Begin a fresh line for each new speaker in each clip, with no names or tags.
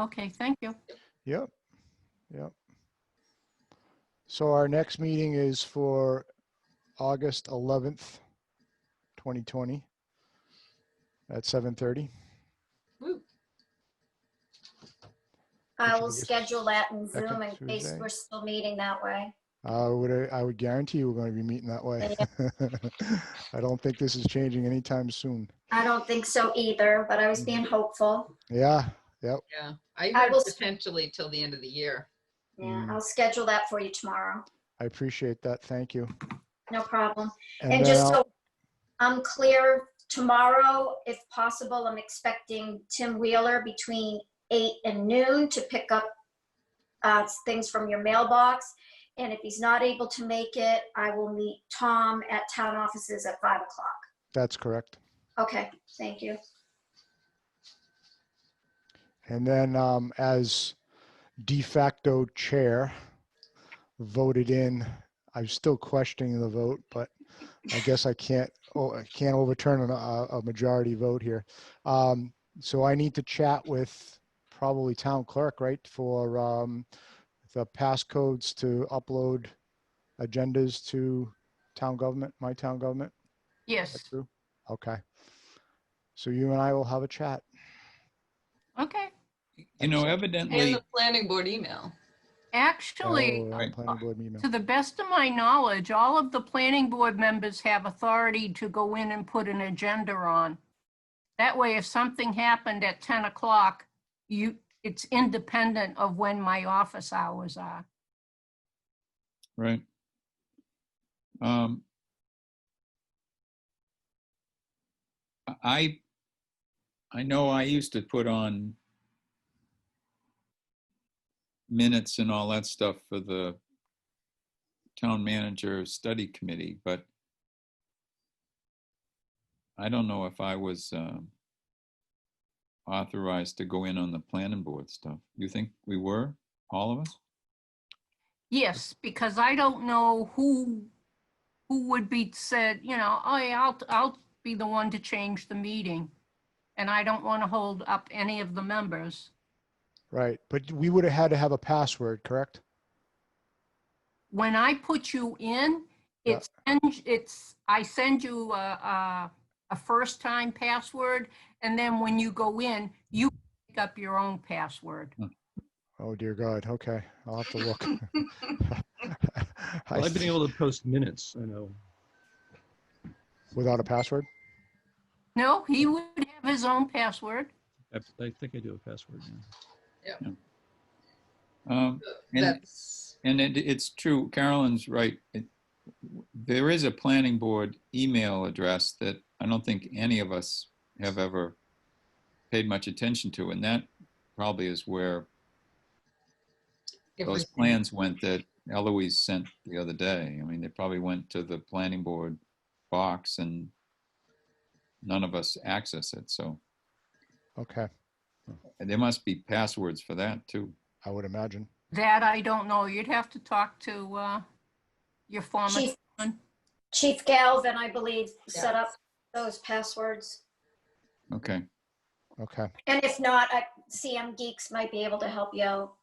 Okay, thank you.
Yep, yep. So our next meeting is for August 11th, 2020 at 7:30.
Woo.
Which
I will
is-
schedule that in
Second
Zoom in case
Tuesday.
we're still meeting that way.
I would, I would guarantee you we're going to be meeting that way. I don't think this is changing anytime soon.
I don't think so either, but
Mm-hmm.
I was being hopeful.
Yeah, yep,
Yeah, I
I
heard
will-
potentially till the end of the year.
Yeah,
Mm.
I'll schedule that for you tomorrow.
I appreciate that. Thank you.
No problem.
then
And just
I'll-
so I'm clear, tomorrow, if possible, I'm expecting Tim Wheeler between eight and noon to pick up uh, things from your mailbox. And if he's not able to make it, I will meet Tom at town offices at five o'clock.
That's correct.
Okay, thank you.
And then um, as de facto chair, voted in, I'm still questioning the vote, but I guess I can't, oh, I can't overturn a, a majority vote here. Um, So I need to chat with probably town clerk, right, for um, the passcodes to upload agendas to town government, my town government?
Yes.
That's true. Okay. So you and I will have a chat.
Okay.
You know,
And
evidently,
the planning board email.
Actually,
Oh, on planning board email.
to the best of my knowledge, all of the planning board members have authority to go in and put an agenda on. That way, if something happened at 10 o'clock, you, it's independent of when my office hours are.
right. Um, I, I know I used to put on minutes and all that stuff for the town manager study committee, but I don't know if I was um, authorized to go in on the planning board stuff. You think we were, all of us?
Yes, because I don't know who, who would be said, you know, oh, yeah, I'll, I'll be the one to change the meeting. And I don't want to hold up any of the members.
Right, but we would have had to have a password, correct?
When I put you in,
Yeah.
it's, it's, I send you a, a, a first time password. And then when you go in, you pick up your own password.
Oh dear God, okay, I'll have to look. I
Well, I've been
th-
able to post minutes, I know.
Without a password?
No, he would have his own password.
I I think I do have a password. yeah.
Um, And-
That's,
And it, it's true, Carolyn's right. It, there is a planning board email address that I don't think any of us have ever paid much attention to, and that probably is where those
everything.
plans went that Eloise sent the other day. I mean, they probably went to the planning board box and none of us access it, so
Okay,
and there must be passwords for that too.
I would imagine.
That I don't know. You'd have to talk to, uh, your former
Chief,
one.
Chief Galvin, I believe, set
Yeah.
up those passwords.
Okay,
Okay,
And if not, I- CM Geeks might be able to help you out.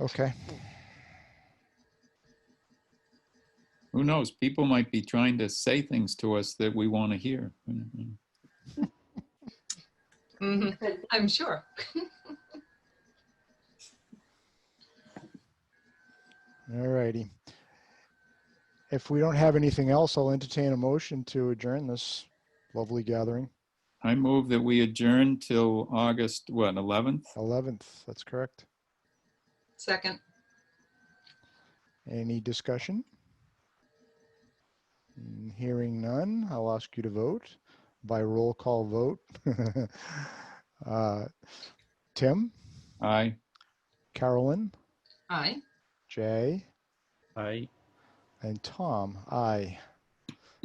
okay.
who knows? People might be trying to say things to us that we want to hear. Mhm.
Mhm, I'm sure.
All righty. If we don't have anything else, I'll entertain a motion to adjourn this lovely gathering.
I move that we adjourn till August, what, 11th?
11th, that's correct.
Second,
Any discussion? Mm, Hearing none, I'll ask you to vote by roll call vote. Uh, Tim,
Aye.
Carolyn,
aye.
Jay,
I
and Tom, aye.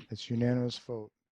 It's unanimous vote.